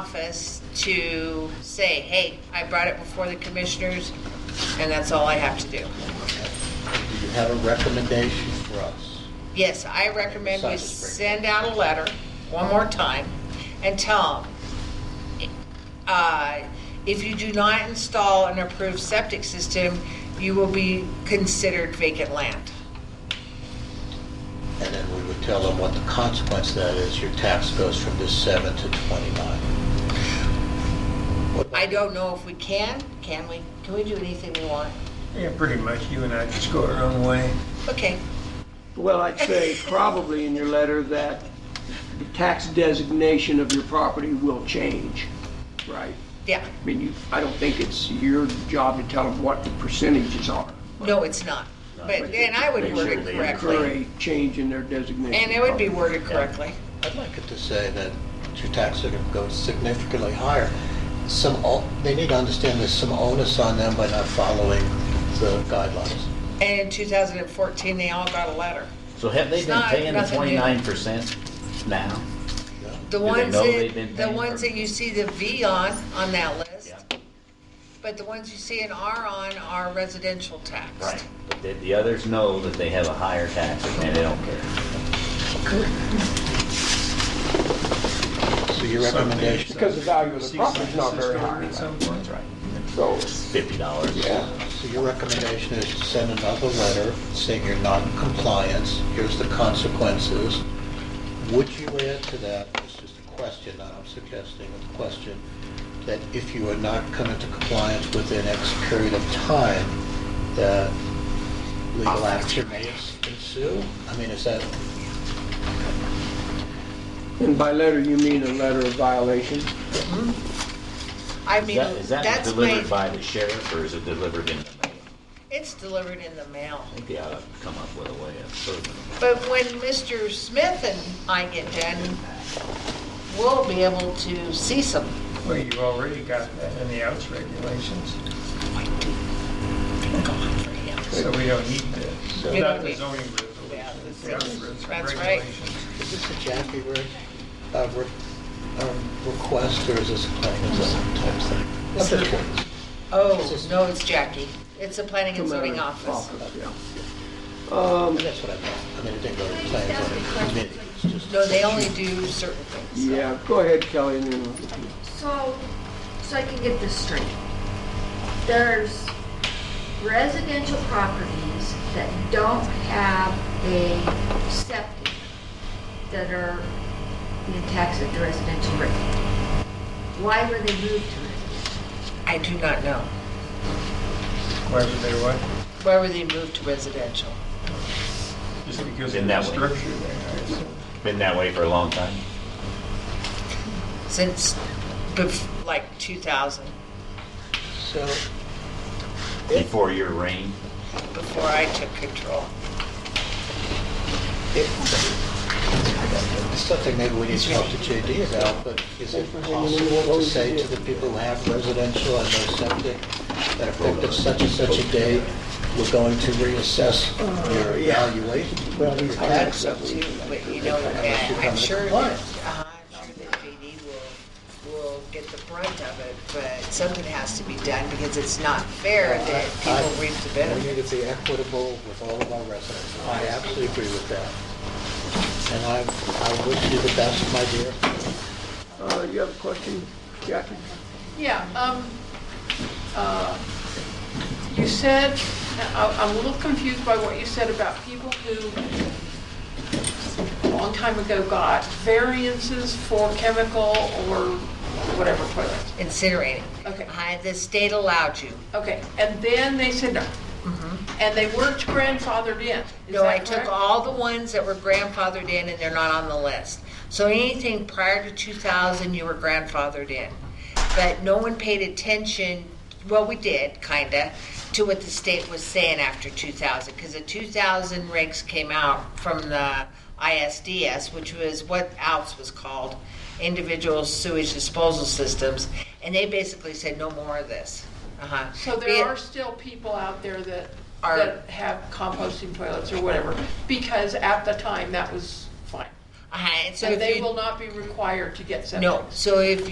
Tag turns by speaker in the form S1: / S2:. S1: office to say, hey, I brought it before the commissioners, and that's all I have to do.
S2: Do you have a recommendation for us?
S1: Yes, I recommend we
S2: Besides the spring.
S1: send out a letter one more time and tell them, uh, if you do not install an approved septic system, you will be considered vacant land.
S2: And then we would tell them what the consequence of that is, your tax goes from this 7 to 29. What about-
S1: I don't know if we can, can we? Can we do anything we want?
S3: Yeah, pretty much, you and I just go our own way.
S1: Okay,
S4: Well, I'd say probably in your letter that the tax designation of your property will change, right?
S1: yeah.
S4: I mean, you, I don't think it's your job to tell them what the percentages are.
S1: No, it's not. But, and I would word it
S4: Occur
S1: correctly.
S4: a change in their designation.
S1: And it would be worded correctly.
S2: I'd like it to say that your taxes are going to go significantly higher. Some, o- they need to understand there's some onus on them by not following the guidelines.
S1: And in 2014, they all got a letter.
S5: So have they
S1: It's
S5: been
S1: not-
S5: paying the
S1: nothing new.
S5: twenty-nine percent now?
S1: The
S5: Do they
S1: ones
S5: know they've
S1: that,
S5: been
S1: the
S5: paying
S1: ones
S5: for-
S1: that you see the V on, on that list, but the ones you see an R on are residential taxed.
S5: Right. But the, the others know that they have a higher tax and they don't care.
S2: So your
S3: uh,
S2: recommendation,
S4: Because the value of the property's not very high.
S3: At some point.
S5: right.
S4: So,
S5: Fifty dollars.
S4: yeah.
S2: so your recommendation is to send another letter saying you're non-compliance, here's the consequences. Would you add to that, it's just a question, not I'm suggesting, a question, that if you are not coming to compliance within X period of time, that legal action may ensue? I mean, is that,
S4: And by letter, you mean a letter of violation?
S1: I
S5: Is
S1: mean,
S5: that, is that
S1: that's
S5: delivered
S1: my,
S5: by the sheriff or is it delivered in the mail?
S1: it's delivered in the mail.
S5: I think they ought to come up with a way of serving them.
S1: But when Mr. Smith and I get done, we'll be able to see some.
S3: Well, you've already got that in the outs regulations, so we don't need
S1: We
S3: to,
S1: don't
S3: not the
S1: need-
S3: zoning
S1: Yeah,
S3: regulations, the
S1: that's-
S3: outs regulations.
S1: that's right.
S2: is this a Jackie re- uh, re- um, request, or is this a planning and zoning type thing? I'm just curious.
S1: Oh, no, it's Jackie. It's the planning and
S4: Come out
S1: zoning
S4: of
S1: office.
S4: yeah.
S2: And That's what I meant. I mean, it didn't go to the planning and zoning committee. It's just-
S1: No, they only do certain things.
S4: Yeah, go ahead, Kelly, and then we'll-
S6: So, so I can get this straight. There's residential properties that don't have a septic that are being taxed at the residential rate. Why were they moved to residential?
S1: I do not know.
S3: Why would they what?
S1: Why were they moved to residential?
S3: Just because of
S5: In
S3: the
S5: that way.
S3: structure there, I assume.
S5: Been that way for a long time?
S1: Since bef- like 2000,
S2: So, if,
S5: Before your reign?
S1: before I took control.
S2: if, it's something maybe we need to talk to JD about, but is it possible to say to the people who have residential and no septic, that effective such and such a date, we're going to reassess your evaluation? Well, these
S1: I think so too, but you know,
S2: Unless you
S1: uh,
S2: come
S1: I'm
S2: to
S1: sure that,
S2: compliance.
S1: uh, I'm sure that JD will, will get the brunt of it, but something has to be done because it's not fair that people reap the
S2: We
S1: benefit.
S2: need to be equitable with all of our residents. I absolutely agree with that. And I, I wish you the best, my dear.
S4: Uh, you have a question, Jackie?
S7: Yeah, um, uh, you said, I- I'm a little confused by what you said about people who a long time ago got variances for chemical or whatever toilets.
S1: Incinerating.
S7: Okay.
S1: I- The state allowed you.
S7: Okay, and then they said no. And they weren't grandfathered in. Is
S1: Mm-hmm. No, I
S7: that
S1: took
S7: correct?
S1: all the ones that were grandfathered in and they're not on the list. So anything prior to 2000, you were grandfathered in. But no one paid attention, well, we did, kinda, to what the state was saying after 2000. Because the 2000 regs came out from the ISDS, which was what else was called individual sewage disposal systems. And they basically said, no more of this. Uh-huh.
S7: So
S1: Be it-
S7: there are still people out there that,
S1: Are-
S7: that have composting toilets or whatever, because at the time, that was fine.
S1: Uh-huh. And so
S7: So
S1: if
S7: they
S1: you-
S7: will not be required to get septic?
S1: No, so if